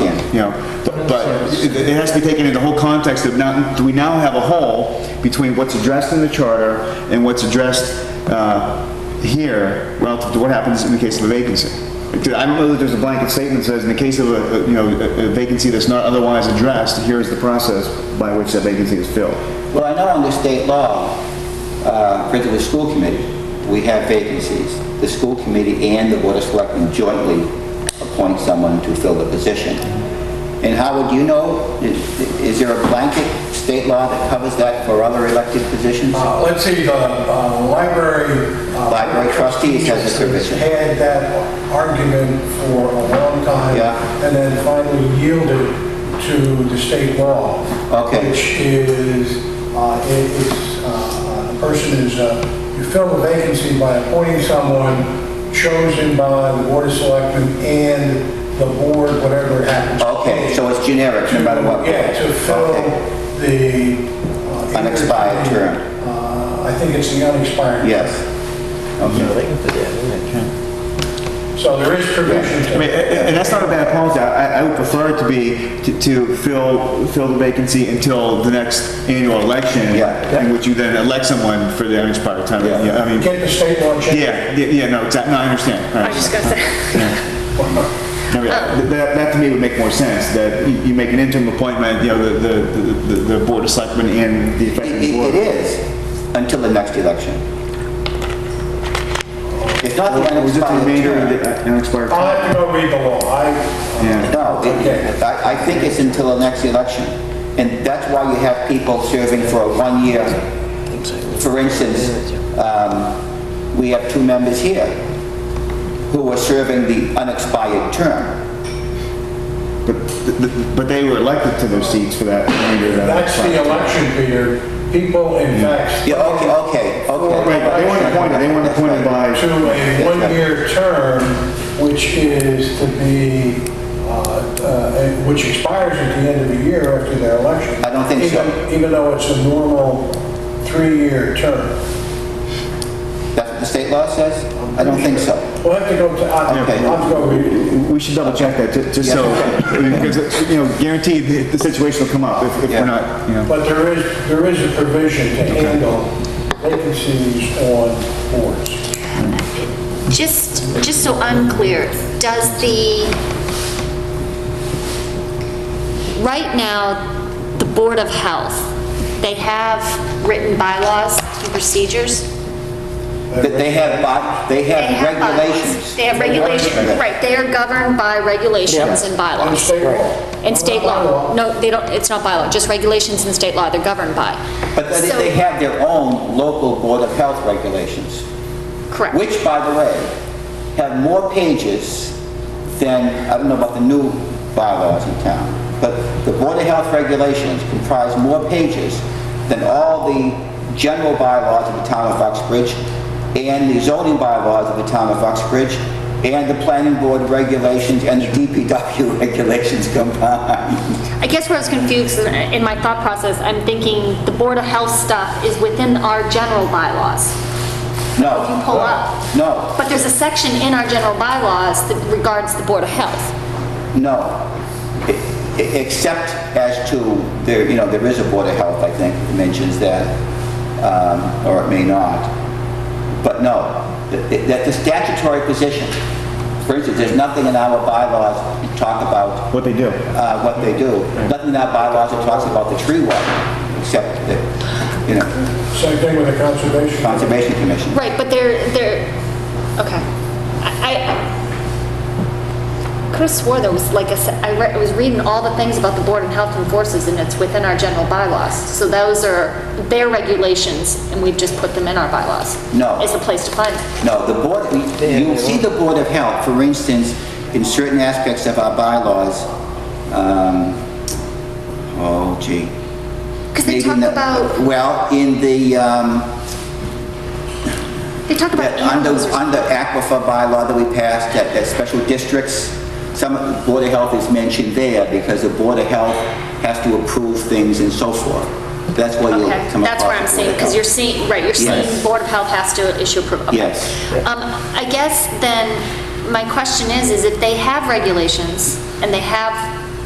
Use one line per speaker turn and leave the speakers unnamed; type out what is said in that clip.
you know, th- but it it has to be taken in the whole context of now, do we now have a hole between what's addressed in the charter and what's addressed uh, here relative to what happens in the case of a vacancy? Because I don't know that there's a blanket statement that says, in the case of a, a, you know, a a vacancy that's not otherwise addressed, here is the process by which that vacancy is filled.
Well, I know under state law, uh, for the school committee, we have vacancies. The school committee and the board of selectmen jointly appoint someone to fill the position. And Howard, do you know, i- i- is there a blanket state law that covers that for other elected positions?
Uh, Let's see, the uh, library... uh,
Library trustees has this provision.
Had that argument for a long time.
Yeah.
And then finally yielded to the state law.
Okay.
Which is, uh, it is, uh, the person is, uh, you fill the vacancy by appointing someone chosen by the board of selectmen and the board, whatever it happens. to
Okay,
be.
so it's generic, no matter what.
Yeah, to fill
Okay.
the... uh,
Unexpired term.
Uh, I think it's the unexpired.
Yes. Okay.
So there is provision
I mean,
to,
a- a- and that's not a bad policy. I, I would prefer it to be, to- to fill, fill the vacancy until the next annual election,
Yeah.
in which you then elect someone for the unexpired time.
Yeah.
Yeah, I mean,
get the state law changed.
yeah, yeah, yeah, no, exactly, no, I understand.
I just Uh, got that.
No, yeah, th- That, that to me would make more sense, that you you make an interim appointment, you know, the, the, the- the board of selectmen and the
It
effective
it- it
board.
is, until the next election. It's not the
Or is it the
unexpired
remainder of
term.
the unexpired
I'll
time?
have to go read the law. I,
Yeah.
No, it- I, I think it's until the next election. And that's why you have people serving for a one-year. For instance, um, we have two members here who are serving the unexpired term.
But, th- th- but they were elected to their seats for that remainder of that.
that's the election period. People in fact.
Yeah, okay, okay, okay.
Right, but they weren't appointed, they weren't appointed by.
To a one-year term, which is to be, uh, uh, and which expires at the end of the year after their election.
I don't think so.
Even- Even though it's a normal three-year term.
That's what the state law says? I don't think so.
We'll have to go to, I'll I'll
Okay.
have to go read it.
We should double check that, ju- just so, I mean, because, you know, guaranteed, the- the situation will come up if if
Yeah.
we're not, you know.
But there is, there is a provision to handle vacancies on boards.
Just, just so I'm clear, does the, right now, the Board of Health, they have written bylaws and procedures?
That They have, bod- they
They
have
have bylaws.
regulations.
They have regulations, right, they are governed by regulations and
And
bylaws.
state law.
And state law. No, they don't, it's not bylaw, just regulations and state law they're governed by.
But they-
So-
they have their own local Board of Health regulations,
Correct.
which, by the way, have more pages than, I don't know about the new bylaws in town, but the Board of Health regulations comprise more pages than all the general bylaws of the town of Uxbridge, and the zoning bylaws of the town of Uxbridge, and the planning board regulations, and the DPW regulations combined.
I guess where I was confused is in my thought process, I'm thinking the Board of Health stuff is within our general bylaws.
No.
If you pull up.
No,
But there's a section in our general bylaws that regards the Board of Health.
no. E- e- Except as to, there, you know, there is a Board of Health, I think, that mentions that, um, or it may not. But no, th- that the statutory position, for instance, there's nothing in our bylaws that talk about
What they do.
uh, what they do. Nothing in our bylaws that talks about the tree warden, except that, you know,
Same thing with the conservation.
Conservation Commission.
Right, but they're, they're, okay. I, I could have swore there was like a, se- I re- I was reading all the things about the Board of Health and Forces and it's within our general bylaws. So those are their regulations and we've just put them in our bylaws.
No.
Is the place to find them.
No, the board, you'll see the Board of Health, for instance, in certain aspects of our bylaws, um, oh gee.
Because they
Maybe
talk
in the-
about,
Well, in the, um,
they talk about
that under,
animals or
under aquifer bylaw that we passed, that, that special districts, some, Board of Health is mentioned there because the Board of Health has to approve things and so forth. That's where you'll
Okay,
come across.
that's where I'm
the Board
seeing,
of
because
Health.
you're seeing, right, you're seeing
Yes.
Board of Health has to issue approval. Okay.
Yes.
Um, I guess then, my question is, is if they have regulations and they have